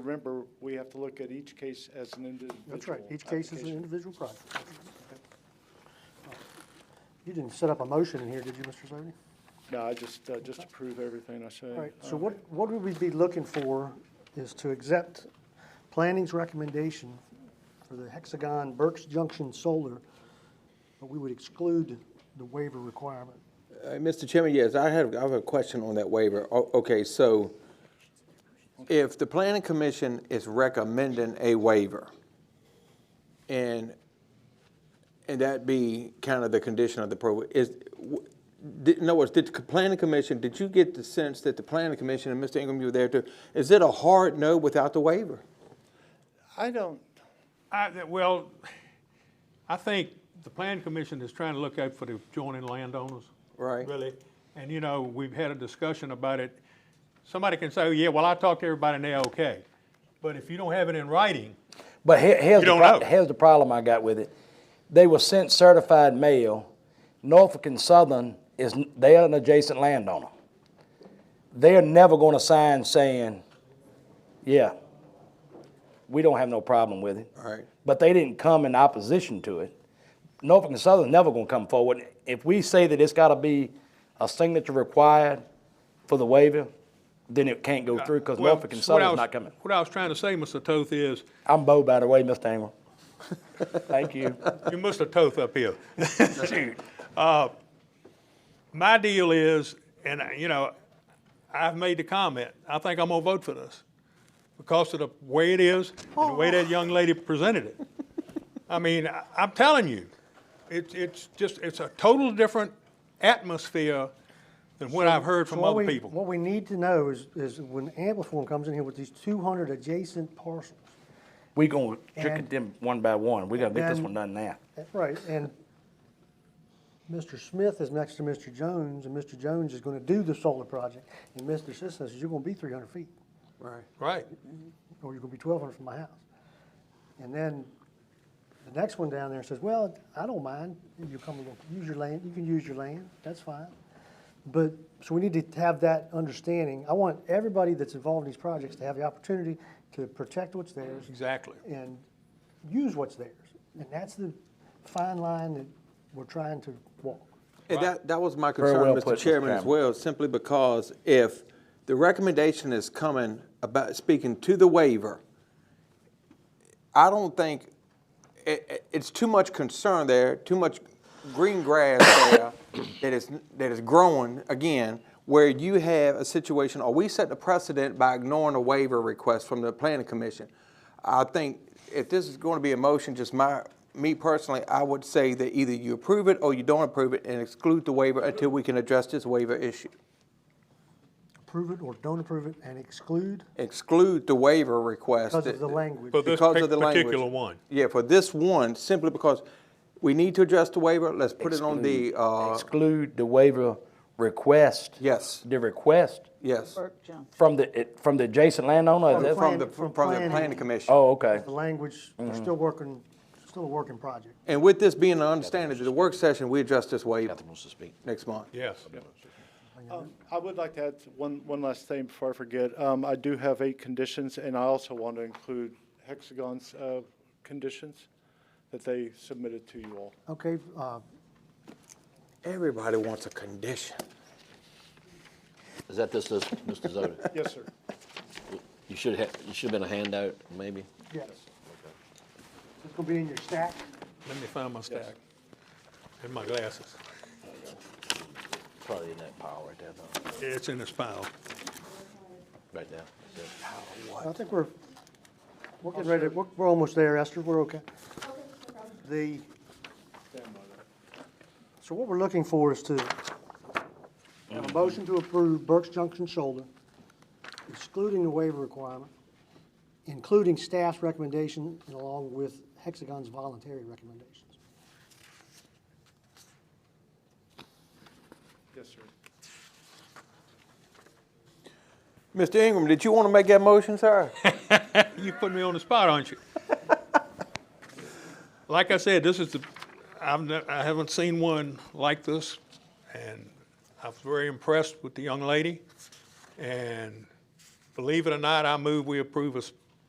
Remember, we have to look at each case as an individual. That's right, each case is an application. individual project. You didn't set up a motion in here, did you, Mr. Slavy? No, I just, uh, just approve everything I say. All right, so Uh, what, what would we be looking for is to accept planning's recommendation for the hexagon Burke's Junction Solar, but we would exclude the waiver requirement. Uh, Mr. Chairman, yes, I have, I have a question on that waiver. O- Okay, so if the planning commission is recommending a waiver, and, and that be kind of the condition of the pro, is, w- did- in other words, did the planning commission, did you get the sense that the planning commission, and Mr. Ingram, you were there too, is it a hard no without the waiver? I don't, I, that- well, I think the plan commission is trying to look out for the joining landowners. Right. Really. And, you know, we've had a discussion about it. Somebody can say, "Oh, yeah, well, I talked to everybody and they're okay. But if you don't have it in writing, But here- here's, You the don't pro- know. here's the problem I got with it. They were sent certified mail. Norfolk and Southern is, n- they are an adjacent landowner. They're never gonna sign saying, yeah, we don't have no problem with it. All right. But they didn't come in opposition to it. Norfolk and Southern never gonna come forward. If we say that it's gotta be a signature required for the waiver, then it can't go through, because Well, Norfolk and so what I Southern's was- not coming. What I was trying to say, Mr. Toth, is, I'm Bo, by the way, Mr. Ingram. Thank you. you missed a Toth up here. Shoot. Uh, My deal is, and, I- you know, I've made the comment, I think I'm gonna vote for this because of the way it is and the way that young lady presented it. I mean, I- I'm telling you, it's, it's just, it's a total different atmosphere than what I've heard So from what other we- people. What we need to know is, is when Ampliform comes in here with these two hundred adjacent parcels, We gonna trick And- it them one by one. We gotta make this and- one done now. Right, and Mr. Smith is next to Mr. Jones, and Mr. Jones is gonna do the solar project. And Mr. Sisson says, you're gonna be three hundred feet, Right. Right. or you're gonna be twelve hundred from my house. And then the next one down there says, well, I don't mind, you come, and use your land, you can use your land, that's fine. But, so we need to have that understanding. I want everybody that's involved in these projects to have the opportunity to protect what's theirs, Exactly. and use what's theirs. And that's the fine line that we're trying to walk. And that, that was my concern, well Mr. put, Mr. Chairman, as Chairman. well, simply because if the recommendation is coming about, speaking to the waiver, I don't think, it, it- it's too much concern there, too much green grass there that is, that is growing, again, where you have a situation, or we set the precedent by ignoring a waiver request from the planning commission. I think if this is going to be a motion, just my, me personally, I would say that either you approve it or you don't approve it and exclude the waiver until we can address this waiver issue. Approve it or don't approve it and exclude. Exclude the waiver request. Because of that- the language. For this because of pic- the language. particular one. Yeah, for this one, simply because we need to address the waiver, let's put it on the, uh, Exclude the waiver request. Yes. The request yes, from the, it- from the adjacent landowner? From the is that- from the, Plan- from from the planning. planning commission. Oh, okay. The language, we're still working, still a working project. And with this being an understanding, that the work session, we address this waiver next month. Yes. um, I would like to add one, one last thing before I forget. Um, I do have eight conditions, and I also want to include Hexagon's, uh, conditions that they submitted to you all. Okay, uh, Everybody wants a condition. Is that this, list, Mr. Zoder? Yes, sir. You should have, you should have been a handout, maybe? yes. It's gonna be in your stack. Let me find my stack and my glasses. Probably in that pile right there, though, It's in this pile. right now. I think we're, we're getting ready, to- we're, we're almost there, Esther, we're okay. The, so what we're looking for is to have a motion to approve Burke's Junction shoulder, excluding the waiver requirement, including staff's recommendation and along with Hexagon's voluntary recommendations. Yes, sir. Mr. Ingram, did you want to make that motion, sir? You put me on the spot, aren't you? Like I said, this is the, I've, ne- I haven't seen one like this, and I was very impressed with the young lady. And believe it or not, I move we approve a s-